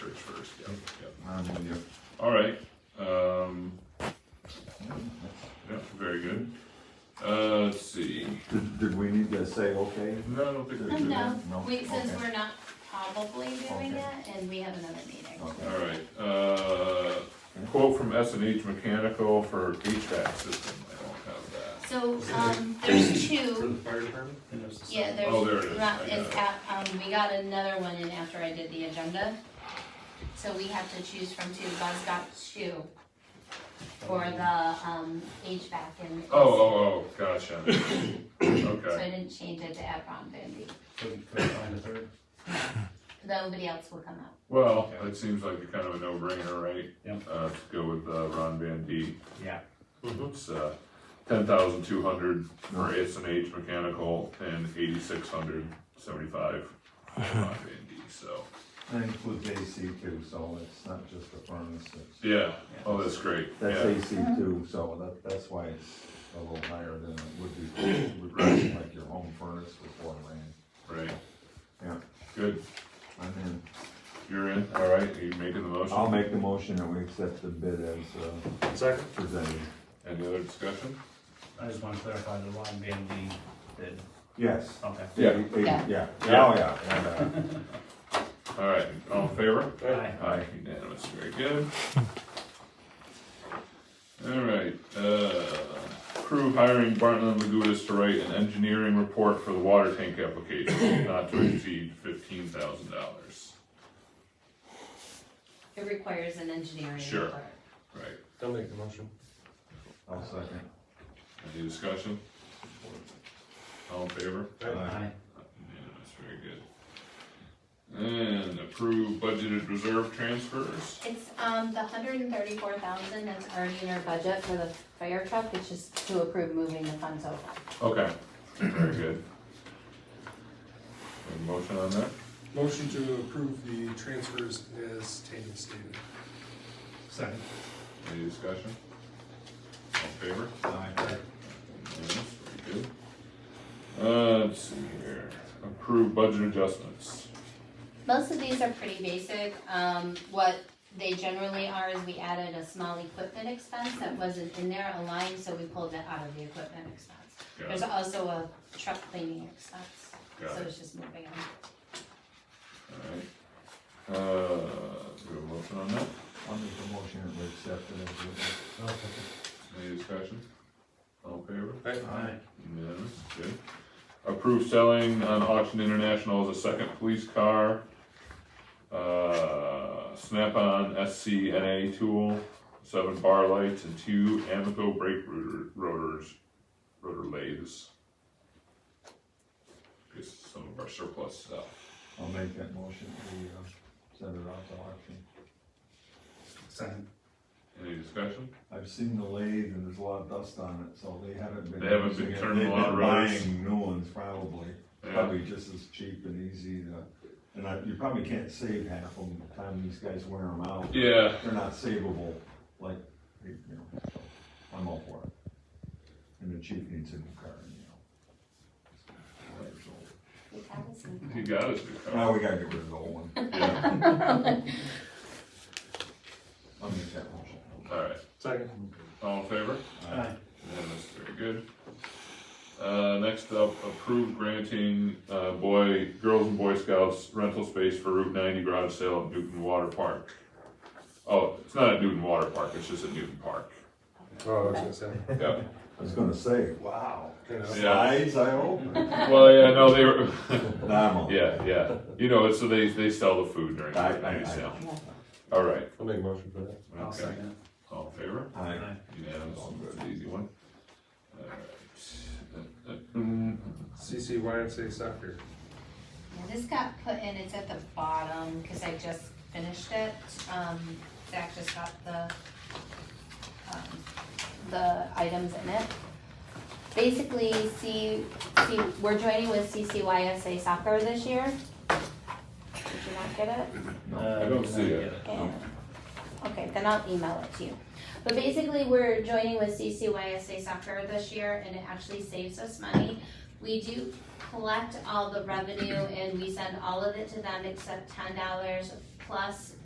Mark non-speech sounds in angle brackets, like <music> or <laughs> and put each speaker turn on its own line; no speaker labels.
I'm with you.
All right, um, yeah, very good. Uh, let's see,
Did, did we need to say okay?
no, I don't think we
Um,
should.
No,
No?
we, since
Okay.
we're not probably doing
Okay.
it, and we have another meeting.
Okay.
All right, uh, quote from S and H Mechanical for HVAC system, I don't have that.
So, um, there's
For the
two,
fire department? And there's the
yeah, there's.
Oh, there it is.
not-
I
It's
got
at, um, we got another one in after I did the agenda. So we have to choose from two, Buzz got two for the, um, HVAC and.
Oh, oh, oh, gotcha,
So I
okay,
didn't change it to Avron Bambi.
Couldn't couldn't find a third.
Nobody else will come up.
well, it seems like a kind of a no-brainer, right?
Yep.
Uh, to go with, uh, Ron Van D.
Yeah.
It's, uh, ten thousand two hundred for S and H Mechanical and eighty-six hundred seventy-five for Ron Van D, so.
That includes AC two, so it's not just the furnace, it's,
Yeah, oh, that's great,
that's
yeah,
AC two, so that, that's why it's a little higher than it would be, would be like your home furnace before rain.
right,
Yeah,
good,
I'm in.
you're in, all right, are you making the motion?
I'll make the motion that we accept the bid as, uh,
Second.
presented.
Any other discussion?
I just want to clarify the Ron Van D bid.
Yes.
Okay.
Yeah.
Yeah, yeah, yeah, oh, yeah, yeah.
All right, all in favor?
Aye.
Aye, unanimous, very good. <laughs> All right, uh, crew hiring Bartlett and Lagudas to write an engineering report for the water tank application, not to exceed fifteen thousand dollars.
It requires an engineering
Sure.
report.
Right,
I'll make the motion.
I'll second.
any discussion? All in favor?
Aye.
Unanimous, very good. And approve budgeted reserve transfers.
It's, um, the hundred and thirty-four thousand that's already in our budget for the fire truck, it's just to approve moving the funds over.
Okay, very good. Any Motion on that?
Motion to approve the transfers as Tatum stated.
Second.
Any discussion? All in favor?
Aye.
Unanimous, very good. Uh, let's see here, approve budget adjustments.
Most of these are pretty basic, um, what they generally are is we added a small equipment expense that wasn't in there aligned, so we pulled it out of the equipment expense.
Got
There's
it,
also a truck cleaning expense,
got
so
it,
it's just moving on.
alright. Uh, do we have a motion on that?
I'll make the motion that we accept it as written.
Any discussion? All in favor?
Aye.
Unanimous, good. Approve selling on auction international as a second police car. Uh, Snap-on SCNA tool, seven bar lights and two Amico brake rotor, rotors, rotor lathes. Guess some of our surplus stuff.
I'll make that motion, we, uh, send it out to auction.
Second.
Any discussion?
I've seen the lathe and there's a lot of dust on it, so they haven't been.
They haven't been
using it.
turning a
They've
lot of
been
rotors.
Buying new ones probably,
Yeah,
probably just as cheap and easy to, and I, you probably can't save half of them, the time these guys wear them out.
Yeah,
They're not savable, like, you know, so I'm all for it. And the chief needs a new car, you know. Four years old.
We have this in-
you got us, good
Now
car.
we gotta get rid of the old one,
Yeah,
I'll make that motion.
alright,
Second.
all in favor?
Aye.
Unanimous, very good. Uh, next up, approve granting, uh, boy, girls and boy scouts rental space for Route ninety garage sale at Newton Water Park. Oh, it's not at Newton Water Park, it's just at Newton Park.
Oh, I was gonna say.
Yeah,
<laughs> I was gonna say, wow,
you know.
Yeah.
slides, I hope. Nah,
well, yeah, no, they were,
I'm all-
yeah, yeah, you know, it's, so they, they sell the food during
I-
the
I-
night
I-
sale. All right,
I'll make a motion for that.
I'll
okay,
second.
all in favor?
I-
Aye.
Unanimous, That's an easy one. All right.
CC YMCA soccer.
Yeah, this got put in, it's at the bottom, cause I just finished it, um, Zach just got the, um, the items in it. Basically, C, C, we're joining with CCYSA soccer this year. Did you not get it?
I don't see it.
And- Okay, then I'll email it to you. But basically, we're joining with CCYSA soccer this year and it actually saves us money. We do collect all the revenue and we send all of it to them except ten dollars plus